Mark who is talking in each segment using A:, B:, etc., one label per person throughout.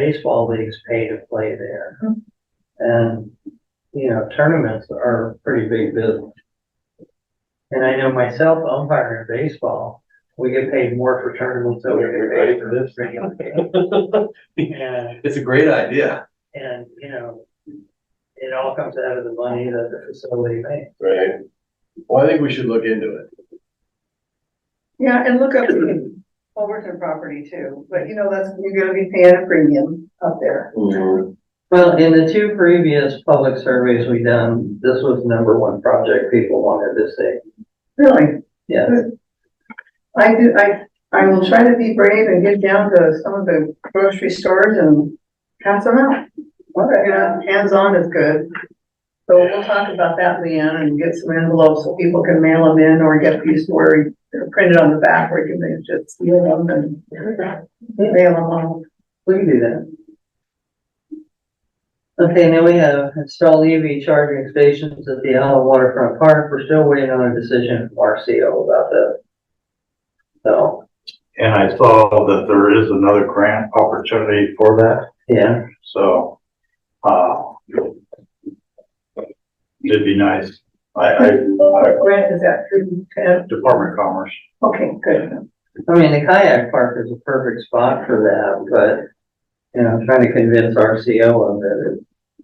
A: baseball leagues pay to play there. And, you know, tournaments are a pretty big business. And I know myself, umpire in baseball, we get paid more for tournaments than we get paid for this regular game. And,
B: It's a great idea.
A: and, you know, it all comes out of the money that the facility makes.
C: Right. Well, I think we should look into it.
D: Yeah, and look up Overton property too, but you know, that's, you're gonna be paying a premium up there.
C: Mm-hmm.
A: Well, in the two previous public surveys we done, this was number one project people wanted to see.
D: Really,
A: Yeah,
D: I do, I, I will try to be brave and get down to some of the grocery stores and pass them out. You know, hands-on is good. So we'll talk about that, Leanne, and get some envelopes so people can mail them in or get these where they're printed on the back where you can just seal them and mail them out.
A: we can do that. Okay, now we have install EV charging stations at the Allen Waterfront Park. We're still waiting on a decision from RCO about that. So,
E: And I saw that there is another grant opportunity for that,
A: yeah,
E: so, uh, it'd be nice. I, I, I-
D: Grant, is that through, uh,
E: Department of Commerce,
D: okay, good.
A: I mean, the kayak park is a perfect spot for that, but, you know, I'm trying to convince RCO of it.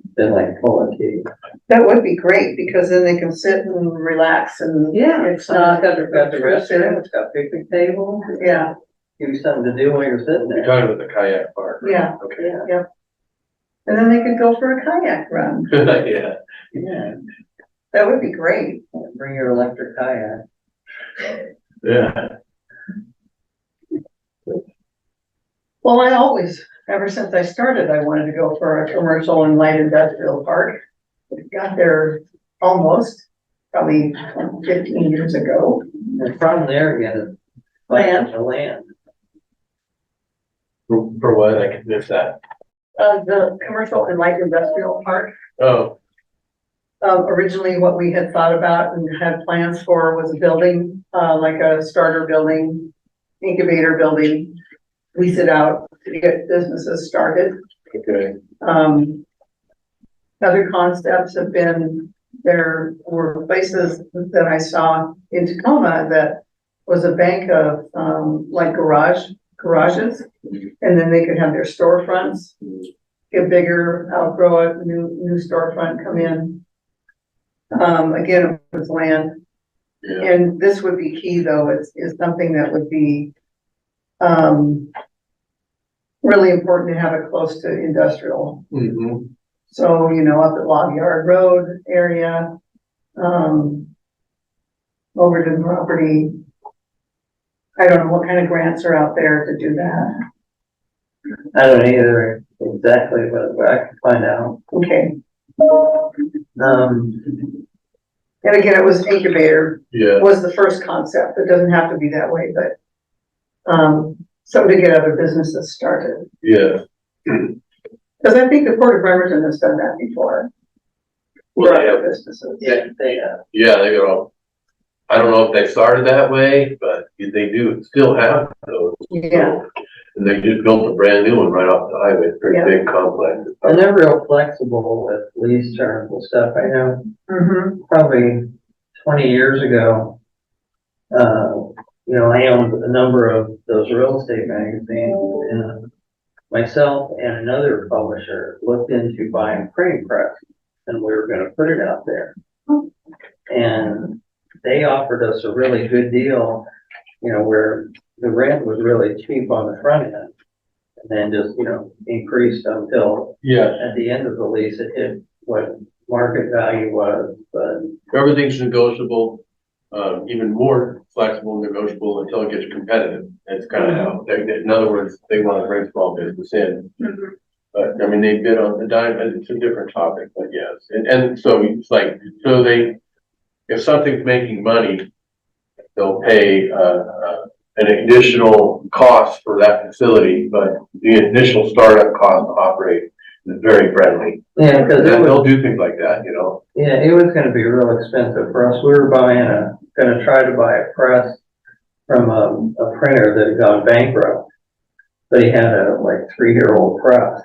A: It's been like pulling teeth.
D: That would be great, because then they can sit and relax and.
A: Yeah, it's
D: it's
A: not,
D: not-
A: got the, got the restroom, it's got picnic table,
D: Yeah,
A: give you something to do while you're sitting
C: You're
A: there.
C: talking about the kayak park. right?
D: Yeah.
C: Okay.
A: Yeah,
D: and then they could go for a kayak run.
C: Good idea.
A: yeah,
D: That would be great.
A: bring your electric kayak.
C: Yeah.
D: Well, I always, ever since I started, I wanted to go for a commercial and light industrial park. Got there almost, probably fifteen years ago.
A: The problem there again is.
D: Land.
A: The land.
C: For for what? I could miss that.
D: Uh, the commercial and light industrial park
C: Oh,
D: Um, originally what we had thought about and had plans for was a building, uh, like a starter building, incubator building. Lease it out to get businesses started.
C: okay.
D: Um, other concepts have been, there were places that I saw in Tacoma that was a bank of, um, like garage, garages. And then they could have their storefronts, get bigger, outgrow it, new, new storefront come in. Um, again, it was land,
C: Yeah.
D: and this would be key though, is, is something that would be, um, really important to have it close to industrial
C: Mhm.
D: so, you know, up at Log Yard Road area, um, Overton property. I don't know what kind of grants are out there to do that.
A: I don't either exactly, but but I can find out.
D: Okay.
A: Um,
D: And again, it was incubator
C: Yeah.
D: was the first concept. It doesn't have to be that way, but, um, something to get other businesses started.
C: Yeah.
D: Cause I think the Port of Bremerton has done that before.
C: Well,
D: for
C: yeah.
D: other Businesses.
A: yeah, they, uh,
C: Yeah, they go. I don't know if they started that way, but they do still have those.
D: Yeah,
C: And they just built a brand new one right off the highway,
D: Yeah.
C: very big complex.
A: and they're real flexible with lease terms and stuff. I know
D: mhm,
A: probably twenty years ago, uh, you know, I owned a number of those real estate magazines and myself and another publisher looked into buying printing press and we were gonna put it out there. And they offered us a really good deal, you know, where the rent was really cheap on the front end. And then just, you know, increased until
C: Yeah.
A: at the end of the lease, it hit what market value was, but
C: Everything's negotiable, um, even more flexible and negotiable until it gets competitive. That's kind of how,
A: Mm-hmm.
C: they- they- in other words, they want to bring small business in.
D: mhm.
C: But, I mean, they bid on the dime, but it's a different topic, but yes. And, and so it's like, so they, if something's making money, they'll pay, uh, uh, an additional cost for that facility, but the initial startup cost to operate is very friendly.
A: Yeah, because
C: And
A: it was,
C: they'll do things like that, you know?
A: yeah, it was gonna be real expensive for us. We were buying a, um, gonna try to buy a press from a, a printer that had gone bankrupt. They had a like three-year-old press